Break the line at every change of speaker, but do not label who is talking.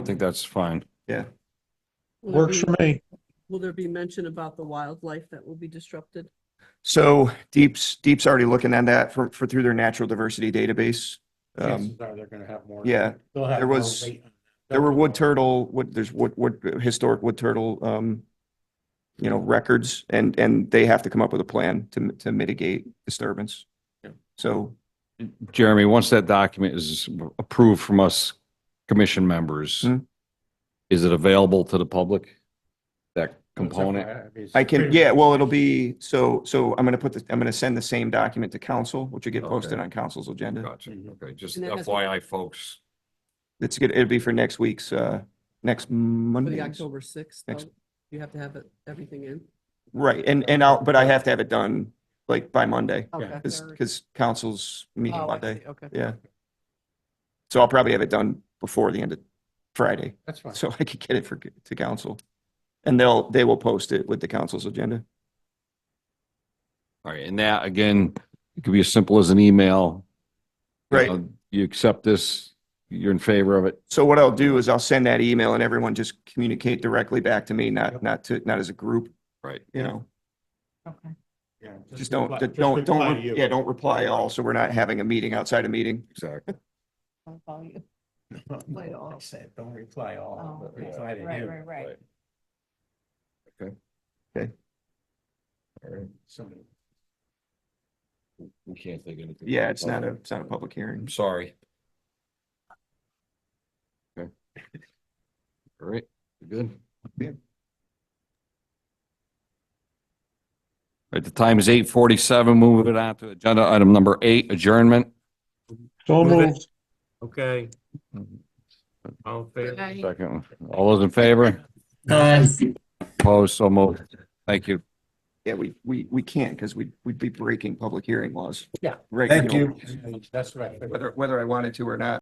I think that's fine.
Will there
Works
be-
for me.
Will there be mention about the wildlife that will be disrupted?
So Deep's, Deep's already looking at that for, for through their natural diversity database. Um,
Chances are they're gonna have more.
yeah,
They'll have
there
more
was-
weight on that.
There were wood
Definitely.
turtle, wood, there's wood, wood, historic wood turtle, um, you know, records and, and they have to come up with a plan to, mi- to mitigate disturbance.
Yeah.
So,
Jeremy, once that document is approved from us commission members,
Hmm.
is it available to the public? That
It's up
component?
to- mean, it's
I can,
pretty-
yeah, well, it'll be, so, so I'm gonna put the, I'm gonna send the same document to council, which will get posted
Okay.
on council's agenda.
Gotcha. Okay, just
And that has-
FYI, folks.
It's good, it'll be for next week's, uh, next
For the
Monday.
October sixth,
Next-
though, you have to have it, everything in?
Right, and, and I'll, but I have to have it done like by Monday,
Okay.
cause,
Or-
'cause council's meeting
Oh, I
Monday,
see, Okay.
yeah. So I'll probably have it done before the end of Friday.
That's fine.
so I could get it for, to council. And they'll, they will post it with the council's agenda.
All right, and that, again, it could be as simple as an email. You
Right.
know, You accept this, you're in favor of it.
So what I'll do is I'll send that email and everyone just communicate directly back to me, not,
Yep.
not to, not as a group,
Right.
you know?
Okay.
Yeah,
Just don't,
reply-
don't,
just
don't,
reply to
don't-
you.
yeah, don't reply all, so we're not having a meeting outside a meeting.
Exactly.
I'll follow you.
No,
Reply all.
I said, don't reply all,
Oh,
but
okay.
reply to
Right,
you.
right, right.
Somebody-
We can't think of anything.
Yeah, it's not a, it's not a public hearing.
I'm sorry. Okay. All right, we're good.
Yeah.
All right, the time is eight forty-seven. Moving on to agenda item number eight, adjournment.
Move So it. moved. Okay. All in favor?
Second, all those in favor? Opposed, so moved. Thank you.
Yeah, we, we, we can't because we, we'd be breaking public hearing laws.
Yeah.
Right.
Thank you. That's right.
Whether, whether I wanted to or not.